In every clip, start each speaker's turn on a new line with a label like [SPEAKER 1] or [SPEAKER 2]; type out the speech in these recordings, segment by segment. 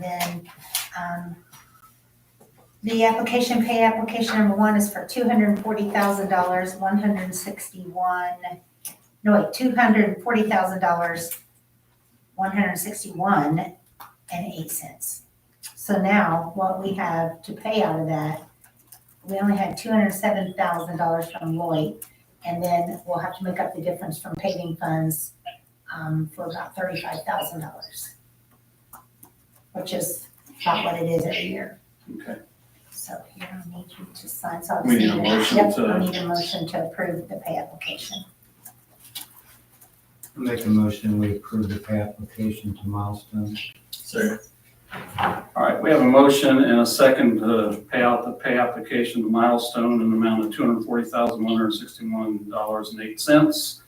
[SPEAKER 1] then, um, the application, pay application number one is for two hundred and forty thousand dollars, one hundred and sixty-one, no, wait, two hundred and forty thousand dollars, one hundred and sixty-one and eight cents. So now, what we have to pay out of that, we only had two hundred and seven thousand dollars from Lloyd, and then we'll have to make up the difference from paving funds, um, for about thirty-five thousand dollars. Which is about what it is every year.
[SPEAKER 2] Okay.
[SPEAKER 1] So here, I need you to sign, so I'll.
[SPEAKER 2] We need
[SPEAKER 1] send
[SPEAKER 2] a
[SPEAKER 1] it.
[SPEAKER 2] motion
[SPEAKER 1] Yep,
[SPEAKER 2] to-
[SPEAKER 1] I need a motion to approve the pay application.
[SPEAKER 3] Make a motion, we approve the pay application to Milestone.
[SPEAKER 2] Second. All right, we have a motion and a second to pay out the pay application to Milestone in the amount of two hundred forty thousand, one hundred sixty-one dollars and eight cents.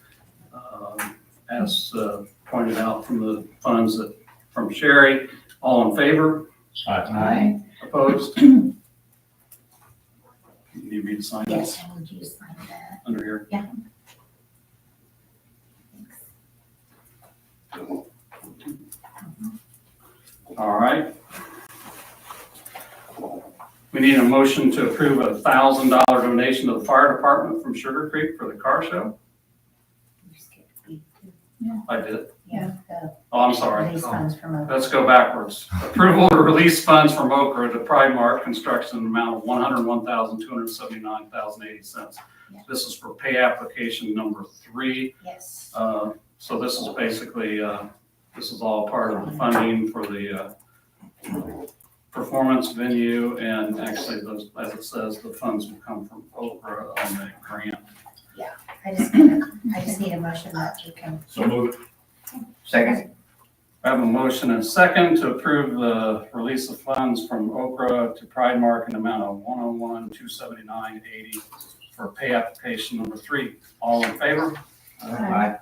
[SPEAKER 2] Um, As uh, pointed out from the funds that, from Sherry, all in favor,
[SPEAKER 3] Aye.
[SPEAKER 2] opposed? You Need me to sign
[SPEAKER 1] Yes,
[SPEAKER 2] this
[SPEAKER 1] I need you to sign that.
[SPEAKER 2] under here?
[SPEAKER 1] Yeah. Mm-hmm.
[SPEAKER 2] All right. We need a motion to approve a thousand dollar donation to the fire department from Sugar Creek for the car show.
[SPEAKER 1] You skipped B two.
[SPEAKER 2] I did.
[SPEAKER 1] Yeah, the
[SPEAKER 2] Oh, I'm sorry.
[SPEAKER 1] these funds from over.
[SPEAKER 2] Let's go backwards. Approval to release funds from Okra to Primark Construction in the amount of one hundred one thousand, two hundred seventy-nine thousand, eighty cents.
[SPEAKER 1] Yeah.
[SPEAKER 2] This is for pay application number three.
[SPEAKER 1] Yes.
[SPEAKER 2] Uh, So this is basically, uh, this is all part of the funding for the uh, performance venue, and actually, those- as it says, the funds will come from Oprah on the grant.
[SPEAKER 1] I just, I just need a motion that you can,
[SPEAKER 4] So moved.
[SPEAKER 3] Second.
[SPEAKER 2] I have a motion and a second to approve the release of funds from Oprah to Pride Mark in amount of one oh one, two seventy-nine, eighty for pay application number three. All in favor?
[SPEAKER 1] Aye.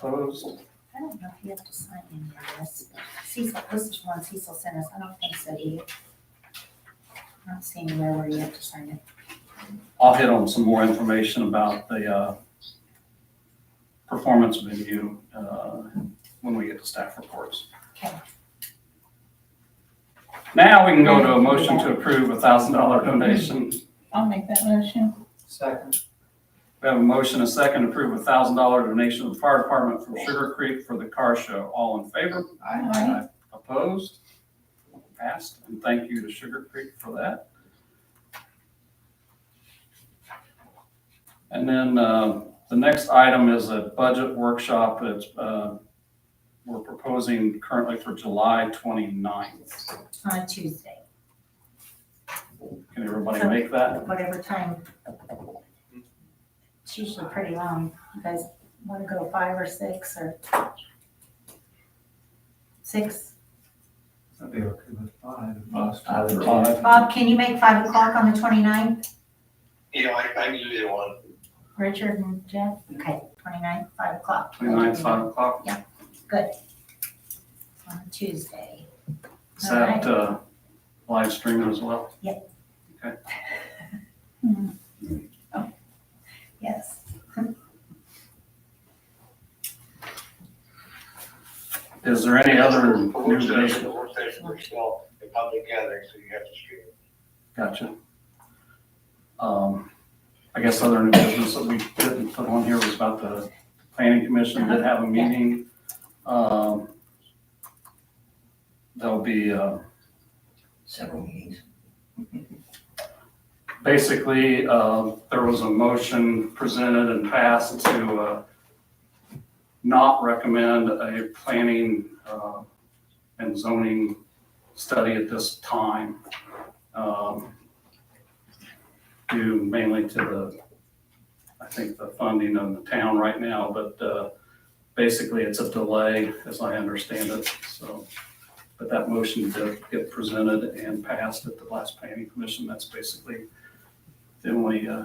[SPEAKER 2] Opposed?
[SPEAKER 1] I don't know if you have to sign any of this. Cecil, this is one Cecil sent us, I don't think so, do you? I'm not seeing anywhere where you have to sign it.
[SPEAKER 2] I'll hit on some more information about the uh, performance venue uh, when we get to staff reports.
[SPEAKER 1] Okay.
[SPEAKER 2] Now we can go to a motion to approve a thousand dollar donation.
[SPEAKER 5] I'll make that motion.
[SPEAKER 3] Second.
[SPEAKER 2] We have a motion, and a second, to approve a thousand dollar donation to the fire department from Sugar Creek for the car show. All in favor?
[SPEAKER 5] Aye.
[SPEAKER 2] Opposed? Passed, and thank you to Sugar Creek for that. And then uh, the next item is a budget workshop that's, uh, we're proposing currently for July 29th.
[SPEAKER 1] On Tuesday,
[SPEAKER 2] Can everybody make that?
[SPEAKER 1] whatever time. It's usually pretty long. You guys want to go five or six or? Six?
[SPEAKER 3] That'd be okay with five.
[SPEAKER 4] I would
[SPEAKER 2] Five.
[SPEAKER 1] Bob, can you make five o'clock on the 29th?
[SPEAKER 6] Yeah, I, I knew they won.
[SPEAKER 1] Richard and Jeff? Okay, 29th, five o'clock.
[SPEAKER 2] 29th, 5 o'clock.
[SPEAKER 1] On Tuesday.
[SPEAKER 2] Is that uh, live stream as well?
[SPEAKER 1] Yes.
[SPEAKER 2] Is there any other new
[SPEAKER 6] Work session,
[SPEAKER 2] business?
[SPEAKER 6] the work session, we're still in public gathering, so you have to stream.
[SPEAKER 2] Gotcha. Um, I guess other new business that we didn't put on here was about the planning commission did have a meeting. Um, That'll be, uh,
[SPEAKER 4] Several meetings.
[SPEAKER 2] basically, uh, there was a motion presented and passed to uh, not recommend a planning uh, and zoning study at this time. um, Due mainly to the, I think, the funding of the town right now, but uh, basically it's a delay, as I understand it, so. But that motion did get presented and passed at the last planning commission. That's basically the only uh,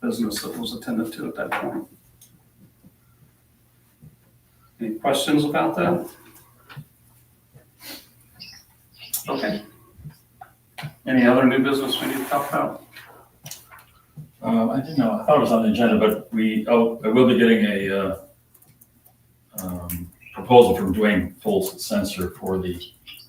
[SPEAKER 2] business that was attended to at that point. Any questions about that? Okay. Any other new business we need to talk about?
[SPEAKER 4] Um, I didn't know, I thought it was on the agenda, but we, oh, I will be getting a, uh, um, proposal from Dwayne Foltz Sensor for the